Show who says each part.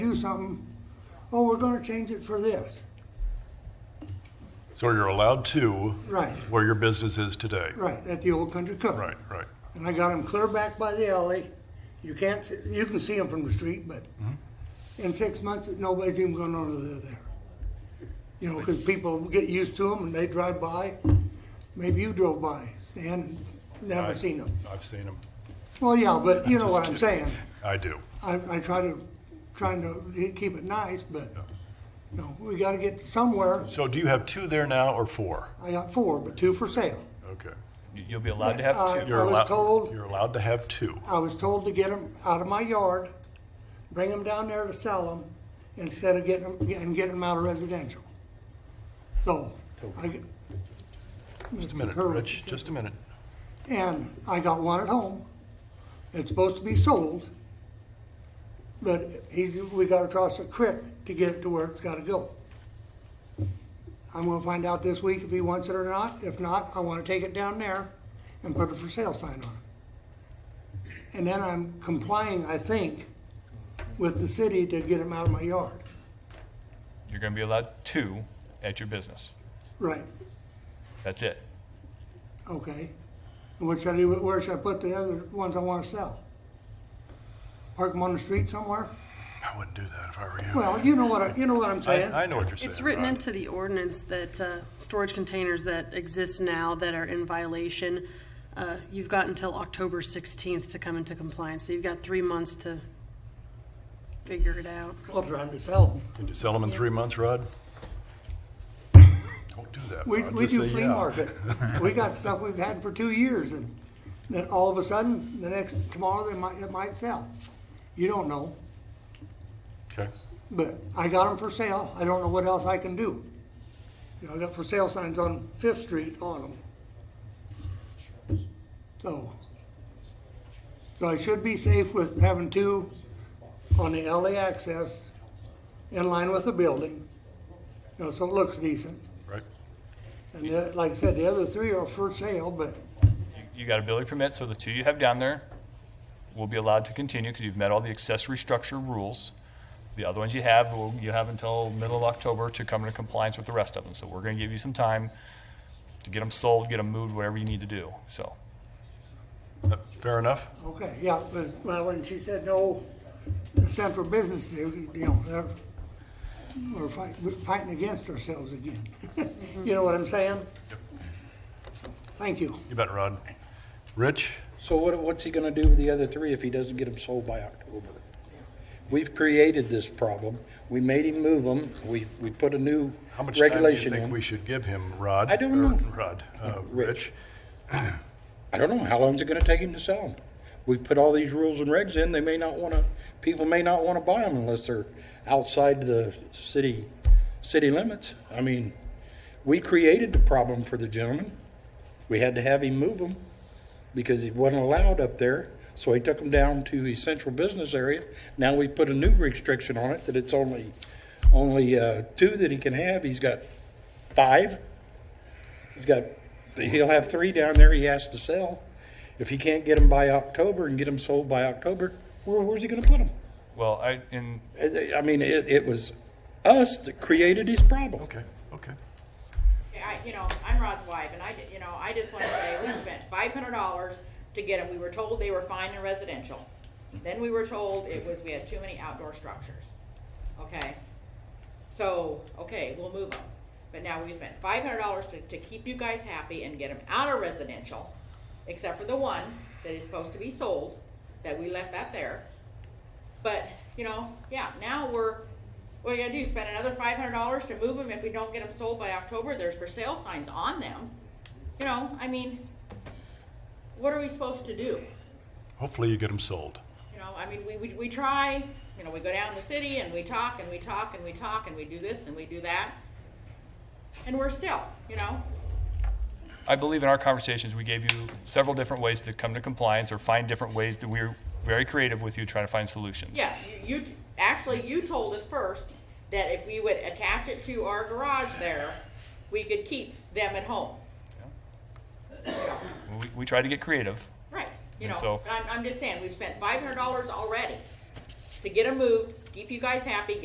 Speaker 1: do something, oh, we're gonna change it for this.
Speaker 2: So you're allowed to
Speaker 1: Right,
Speaker 2: where your business is today.
Speaker 1: right, at the old country cook.
Speaker 2: Right, right.
Speaker 1: And I got them clear back by the alley. You can't, see- you can see them from the street, but in six months, nobody's even gonna know that they're there. You know, because people get used to them and they drive by. Maybe you drove by, Stan, and never
Speaker 2: I-
Speaker 1: seen them.
Speaker 2: I've seen them.
Speaker 1: Well, yeah, but you know what I'm saying.
Speaker 2: I do.
Speaker 1: I, I try to, trying to keep it nice, but, you know, we gotta get somewhere.
Speaker 2: So do you have two there now or four?
Speaker 1: I got four, but two for sale.
Speaker 2: Okay.
Speaker 3: You- You'll be allowed to have two.
Speaker 1: Uh, I was
Speaker 2: allowed-
Speaker 1: told-
Speaker 2: You're allowed to have two.
Speaker 1: I was told to get them out of my yard, bring them down there to sell them, instead of getting them, and getting them out of residential. So, I, g-
Speaker 2: Just a minute,
Speaker 1: Hurwitz
Speaker 2: Rich,
Speaker 1: said-
Speaker 2: just a minute.
Speaker 1: and I got one at home. It's supposed to be sold, but he's, we gotta cross a creek to get it to where it's gotta go. I'm gonna find out this week if he wants it or not. If not, I wanna take it down there and put a for sale sign on it. And then I'm complying, I think, with the city to get him out of my yard.
Speaker 3: You're going to be allowed two at your business.
Speaker 1: Right,
Speaker 3: That's it.
Speaker 1: okay. And What should I do, where should I put the other ones I wanna sell? Park them on the street somewhere?
Speaker 2: I wouldn't do that if I were you.
Speaker 1: Well, you know what, I- you know what I'm saying?
Speaker 2: I, I know what you're saying.
Speaker 4: It's written
Speaker 2: Rod.
Speaker 4: into the ordinance that uh, storage containers that exist now that are in violation, uh, you've got until October 16th to come into compliance. So you've got three months to figure it out.
Speaker 1: Well, trying to sell them.
Speaker 2: Can you sell them in three months, Rod? Don't do that.
Speaker 1: We,
Speaker 2: Rod.
Speaker 1: we
Speaker 2: Just
Speaker 1: do
Speaker 2: say
Speaker 1: flea
Speaker 2: yeah.
Speaker 1: markets. We got stuff we've had for two years and then all of a sudden, the next, tomorrow, they might, it might sell. You don't know,
Speaker 2: Okay.
Speaker 1: but I got them for sale. I don't know what else I can do. You know, I got for sale signs on Fifth Street on them. So, so I should be safe with having two on the LA access in line with the building. You know, so it looks decent.
Speaker 2: Right.
Speaker 1: And the- like I said, the other three are for sale, but,
Speaker 3: You- You got a building permit, so the two you have down there will be allowed to continue because you've met all the accessory structure rules. The other ones you have, will- you have until middle of October to come into compliance with the rest of them. So we're going to give you some time to get them sold, get them moved, whatever you need to do, so.
Speaker 2: Uh, Fair enough.
Speaker 1: okay, yeah, but, well, when she said no, the central business, they, you know, they're, we're fighting, we're fighting against ourselves again. You know what I'm saying? Thank you.
Speaker 2: You bet, Rod. Rich?
Speaker 5: So what, what's he gonna do with the other three if he doesn't get them sold by October? We've created this problem. We made him move them. We, we put a new
Speaker 2: How much time do you
Speaker 5: regulation
Speaker 2: think we
Speaker 5: in.
Speaker 2: should give him, Rod?
Speaker 5: I don't
Speaker 2: or
Speaker 5: know.
Speaker 2: Rod, uh,
Speaker 5: Rich.
Speaker 2: Rich.
Speaker 5: I don't know, how long's it gonna take him to sell them? We've put all these rules and regs in. They may not wanna, people may not wanna buy them unless they're outside the city, city limits. I mean, we created the problem for the gentleman. We had to have him move them because he wasn't allowed up there. So he took them down to his central business area. Now we put a new restriction on it that it's only, only uh, two that he can have. He's got five. He's got, he'll have three down there he has to sell. If he can't get them by October and get them sold by October, where, where's he gonna put them?
Speaker 3: Well, I, in,
Speaker 5: I I mean, it, it was us that created his problem.
Speaker 2: Okay, okay.
Speaker 6: I, you know, I'm Rod's wife, and I, you know, I just want to say we spent five hundred dollars to get them. We were told they were fine in residential. Then we were told it was, we had too many outdoor structures. Okay? So, okay, we'll move them. But now we spent five hundred dollars to, to keep you guys happy and get them out of residential, except for the one that is supposed to be sold, that we left that there. But, you know, yeah, now we're, what are you gonna do, spend another five hundred dollars to move them if we don't get them sold by October, there's for sale signs on them. You know, I mean, what are we supposed to do?
Speaker 2: Hopefully you get them sold.
Speaker 6: You know, I mean, we, we, we try, you know, we go down the city and we talk and we talk and we talk and we do this and we do that. And we're still, you know,
Speaker 3: I believe in our conversations, we gave you several different ways to come to compliance or find different ways that we're very creative with you trying to find solutions.
Speaker 6: yeah, you, you, actually, you told us first that if we would attach it to our garage there, we could keep them at home.
Speaker 3: We, we try to get creative.
Speaker 6: Right, you
Speaker 3: And
Speaker 6: know,
Speaker 3: so-
Speaker 6: I'm, I'm just saying, we've spent five hundred dollars already to get them moved, keep you guys happy,